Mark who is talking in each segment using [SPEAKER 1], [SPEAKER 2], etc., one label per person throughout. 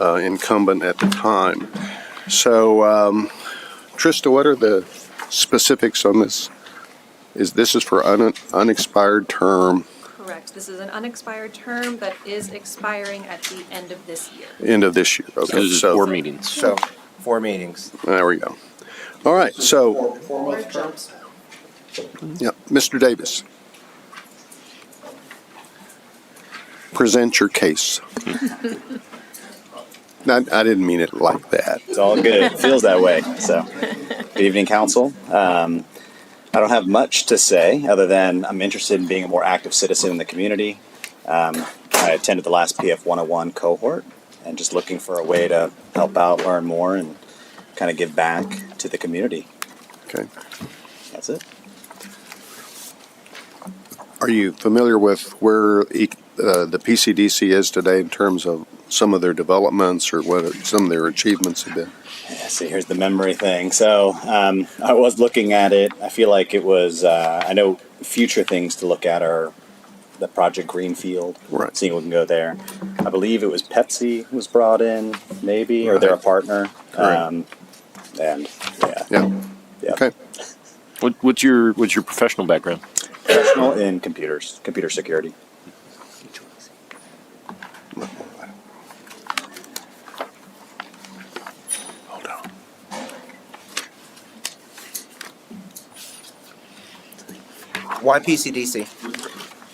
[SPEAKER 1] uh, incumbent at the time. So, um, Trista, what are the specifics on this? Is this is for un- unexpired term,
[SPEAKER 2] Correct. This is an unexpired term that is expiring at the end of this year.
[SPEAKER 1] end of this year? Okay,
[SPEAKER 3] Those are
[SPEAKER 1] so-
[SPEAKER 3] four meetings.
[SPEAKER 4] So, four meetings.
[SPEAKER 1] There we go. All right, so, yeah, Mr. Davis. Present your case. No, I didn't mean it like that.
[SPEAKER 5] It's all good. It feels that way. So, good evening, council. Um, I don't have much to say other than I'm interested in being a more active citizen in the community. Um, I attended the last PF 101 cohort and just looking for a way to help out, learn more, and kind of give back to the community.
[SPEAKER 1] Okay.
[SPEAKER 5] That's it.
[SPEAKER 1] Are you familiar with where e- uh, the PCDC is today in terms of some of their developments or what some of their achievements have been?
[SPEAKER 5] Yeah, see, here's the memory thing. So um, I was looking at it. I feel like it was. Uh, I know future things to look at are the Project Greenfield.
[SPEAKER 1] Right.
[SPEAKER 5] Seeing if we can go there. I believe it was Pepsi was brought in, maybe, or they're a
[SPEAKER 1] Right.
[SPEAKER 5] partner.
[SPEAKER 1] Correct.
[SPEAKER 5] Um, and yeah,
[SPEAKER 1] Yeah,
[SPEAKER 5] yeah.
[SPEAKER 1] okay,
[SPEAKER 3] What, what's your what's your professional background?
[SPEAKER 5] Professional in computers, computer security.
[SPEAKER 4] Why PCDC?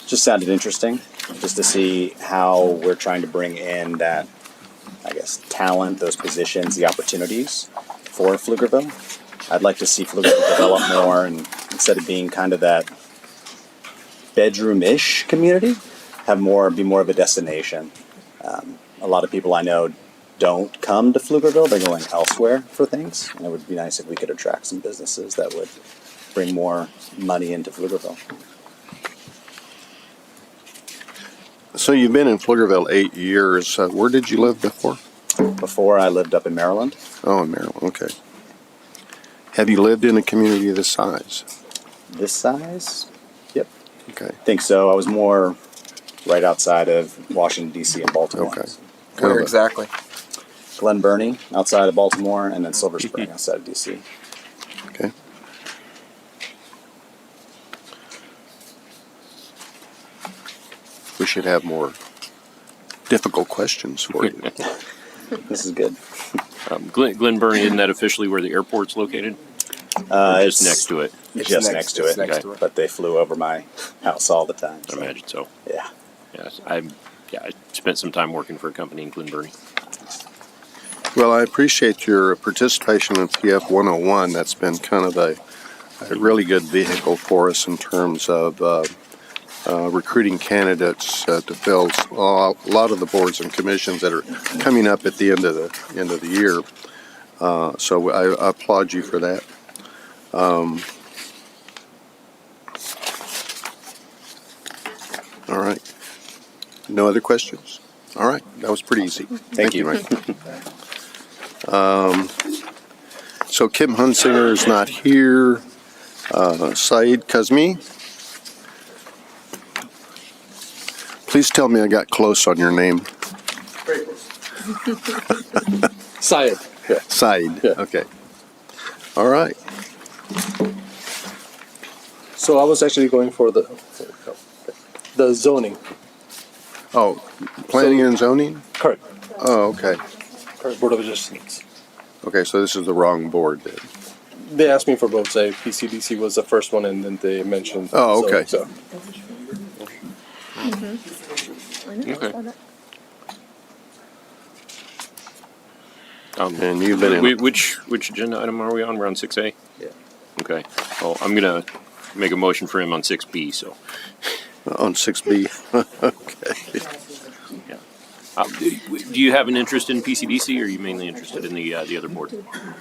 [SPEAKER 5] just sounded interesting just to see how we're trying to bring in that i guess talent those positions the opportunities for pflugerville i'd like to see pflugerville develop more and instead of being kind of that bedroom-ish community have more be more of a destination um, a lot of people i know don't come to pflugerville they're going elsewhere for things and it would be nice if we could attract some businesses that would bring more money into pflugerville
[SPEAKER 1] so you've been in Pflugerville eight years. Uh, Where did you live before?
[SPEAKER 5] before i lived up in maryland
[SPEAKER 1] Oh, in Maryland, okay. Have you lived in a community of this size?
[SPEAKER 5] this size. Yep,
[SPEAKER 1] Okay,
[SPEAKER 5] I think so. I was more right outside of Washington D.C. and Baltimore.
[SPEAKER 1] okay. Kind of
[SPEAKER 4] Where
[SPEAKER 1] a-
[SPEAKER 4] exactly?
[SPEAKER 5] Glen Burnie outside of Baltimore, and then Silver Spring outside of D.C.
[SPEAKER 1] Okay. We should have more difficult questions for you.
[SPEAKER 5] This is good.
[SPEAKER 3] Um, Glen, Glen Burnie, isn't that officially where the airport's located?
[SPEAKER 5] Uh,
[SPEAKER 3] Or just next to it,
[SPEAKER 4] It's
[SPEAKER 5] Just next,
[SPEAKER 4] next-
[SPEAKER 5] to
[SPEAKER 4] it's
[SPEAKER 5] it.
[SPEAKER 4] next
[SPEAKER 5] okay.
[SPEAKER 4] to it.
[SPEAKER 5] But they flew over my house all the time.
[SPEAKER 3] I
[SPEAKER 5] so,
[SPEAKER 3] imagine. So,
[SPEAKER 5] Yeah.
[SPEAKER 3] yeah, I'm. Yeah, I spent some time working for a company in Glen Burnie.
[SPEAKER 1] Well, I appreciate your participation in PF 101. That's been kind of a, a really good vehicle for us in terms of uh, uh, recruiting candidates uh, to fill s- a lot of the boards and commissions that are coming up at the end of the end of the year. Uh, so I, I applaud you for that. Um, all right. No other questions? All right. That was pretty easy. Thank,
[SPEAKER 5] you.
[SPEAKER 1] Mike. Um, So Kim Hunsinger is not here. Uh, Saeed Kazmi? Please tell me I got close on your name.
[SPEAKER 6] Sayed.
[SPEAKER 1] Saeed,
[SPEAKER 6] Yeah.
[SPEAKER 1] okay. All right.
[SPEAKER 6] So I was actually going for the the zoning.
[SPEAKER 1] Oh, planning and zoning?
[SPEAKER 6] Correct.
[SPEAKER 1] Oh, okay.
[SPEAKER 6] Correct. Board of Adjustments.
[SPEAKER 1] Okay, so this is the wrong board then.
[SPEAKER 6] They asked me for both. Say PCDC was the first one, and then they mentioned.
[SPEAKER 1] Oh, okay.
[SPEAKER 6] So, so
[SPEAKER 3] Okay. Um,
[SPEAKER 1] And you've been in-
[SPEAKER 3] whi- Which which agenda item are we on? We're on six A.
[SPEAKER 6] Yeah.
[SPEAKER 3] Okay. Well, I'm gonna make a motion for him on six B. So.
[SPEAKER 1] On 6B.
[SPEAKER 3] Yeah. Uh, do do you have an interest in PCDC, or are you mainly interested in the uh, the other board?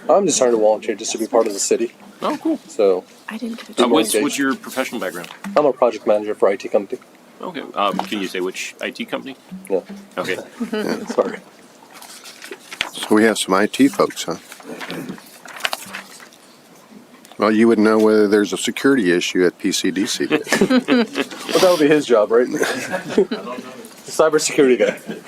[SPEAKER 6] I'm just trying to volunteer just to be part of the city.
[SPEAKER 3] Oh, cool.
[SPEAKER 6] So
[SPEAKER 7] I didn't get a
[SPEAKER 3] Uh,
[SPEAKER 6] Good morning,
[SPEAKER 3] what's
[SPEAKER 6] Dave.
[SPEAKER 3] what's your professional background?
[SPEAKER 6] I'm a project manager for IT company.
[SPEAKER 3] Okay. Um, can you say which IT company?
[SPEAKER 6] Yeah.
[SPEAKER 3] Okay.
[SPEAKER 6] Sorry.
[SPEAKER 1] So we have some IT folks, huh? Well, you wouldn't know whether there's a security issue at PCDC. then.
[SPEAKER 6] Well, that would be his job, right? Cybersecurity guy.